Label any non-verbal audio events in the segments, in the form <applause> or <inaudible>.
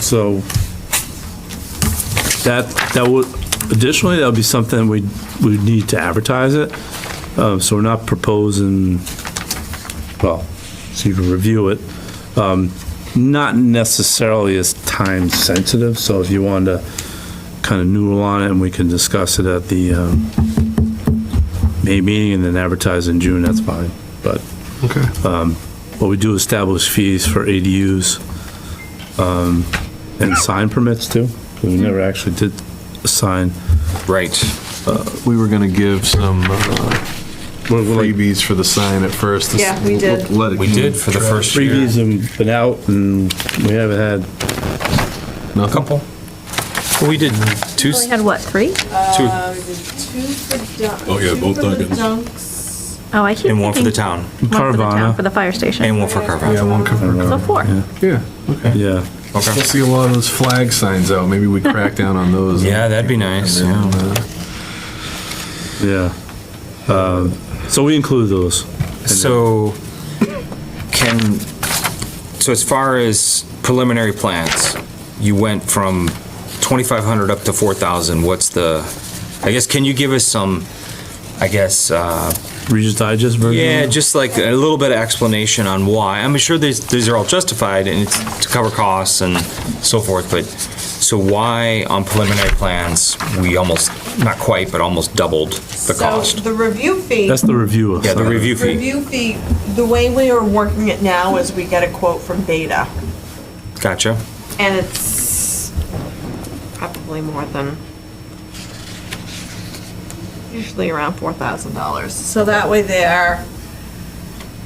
So that, that would, additionally, that would be something we, we need to advertise it. Um, So we're not proposing, well, so you can review it. Um, Not necessarily as time sensitive, so if you wanted to kind of noodle on it and we can discuss it at the um, May meeting and then advertise in June, that's fine. But Okay. what we do establish fees for ADUs um, and sign permits too, 'cause we never actually did a sign. Right. We were gonna give some uh, We're- we're like freebies for the sign at first. This- Yeah, we did. let it We did for the first year. Freebies have been out and we haven't had, A couple. We did two, We had what, three? two, Uh, we did two for dunks. Oh, yeah, both Dunkin'. Dunks. Oh, I keep and one for the thinking- town, One for the town, Carvana. for the fire station. and one for Carver. Yeah, one cover. So four. Yeah, okay. yeah. We'll Okay. see a lot of those flag signs out. Maybe we crack down on those. Yeah, that'd be nice, yeah. And, uh, Yeah. Um, So we include those. So can, so as far as preliminary plans, you went from 2,500 up to 4,000. What's the, I guess, can you give us some, I guess, uh, Regis Digest version? Yeah, just like a little bit of explanation on why. I'm sure these, these are all justified and it's to cover costs and so forth, but, so why on preliminary plans, we almost, not quite, but almost doubled the So cost? the review fee. That's the review of. Yeah, the sign. review fee. Review fee, the way we are working it now is we get a quote from Beta, Gotcha. and it's probably more than, usually around $4,000. So that way they're,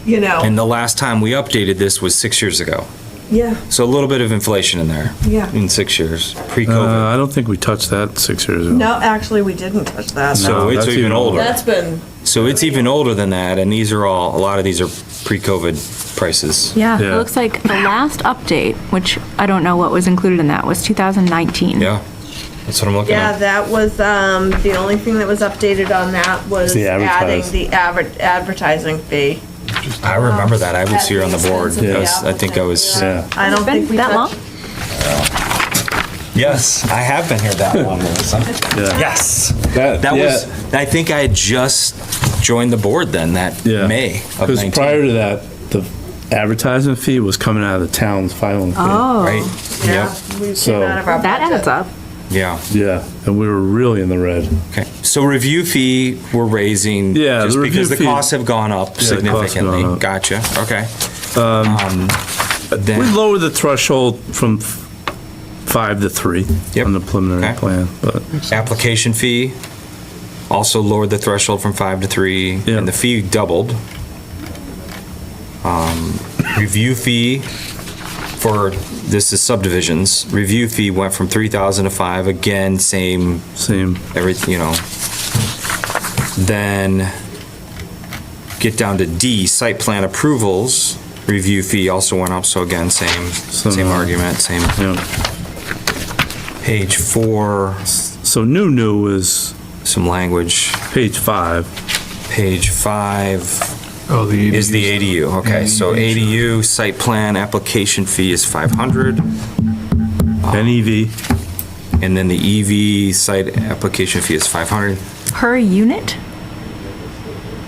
you know. And the last time we updated this was six years ago. Yeah. So a little bit of inflation in there. Yeah. In six years, Uh, pre-COVID. I don't think we touched that six years ago. No, actually, we didn't touch that. No, So it's that's even even older. That's been, So it's even older than that, and these are all, a lot of these are pre-COVID prices. Yeah, it Yeah. looks like the last update, which I don't know what was included in that, was 2019. Yeah, that's what I'm looking yeah, at. that was, um, the only thing that was updated on that was The adding advertise. the adver- advertising fee. I remember that. I was At here on the the board. expense of I the was- I think I was. Yeah. I don't think we That long? touched. Yes, I have been here that long. <laughs> Yes. That was, I think I had just joined the board then, that Yeah. May of Because 19. prior to that, the advertising fee was coming out of the town's filing fee. Oh, Right? Yep, We So- came out of our Oh. That budget. adds up. yeah. Yeah, and we were really in the red. Okay. So review fee, we're raising. Yeah, the Just review because the fee- costs have gone Yeah, the up costs have gone significantly. up. Gotcha, okay. Um, We Then, lowered the threshold from f- five to three Yep. on the preliminary Okay. plan, but application fee, also lowered the threshold from five to three, Yeah. and the fee doubled. Um, Review fee for, this is subdivisions, review fee went from 3,000 to 5, again, same, same. everything, you know. Then get down to D, site plan approvals, review fee also went up, so again, same, same Similar. argument, same. Yeah. Page four, So new, new is some language. page five. Page five, Oh, the. Is the ADUs. ADU, okay, so ADU site plan application fee is 500, E NEV, and then the EV site application fee is 500. Per unit?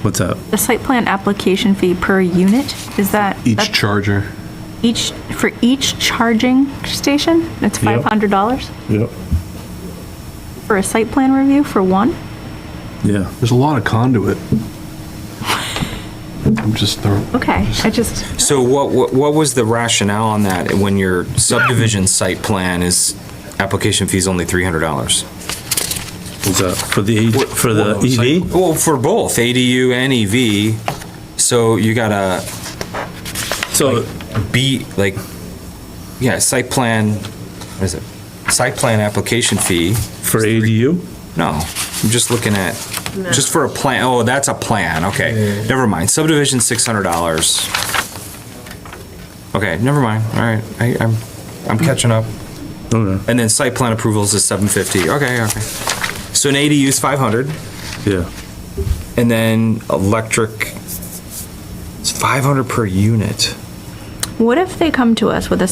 what's that? The site plan application fee per unit? Is that? Each that's charger. Each, for each charging station? It's Yep. $500 Yep. for a site plan review for one? Yeah. There's a lot of conduit. I'm just. throwing- Okay, I just. So what, what what was the rationale on that, when your subdivision site plan is, application fee is only $300? What's that? For the, E, What- for the E what- EV? Well, for both, ADU and EV, so you gotta So, be, like, yeah, site plan, what is it? Site plan application fee, for ADU? No, I'm just looking at, just for a plan, oh, that's a plan, okay. Never mind, subdivision, six hundred dollars. Okay, never mind, all right, I, I'm, I'm catching up. Okay, And then site plan approvals is seven fifty, okay, okay. So an ADU is five hundred, yeah. and then electric, it's five hundred per unit. What if they come to us with a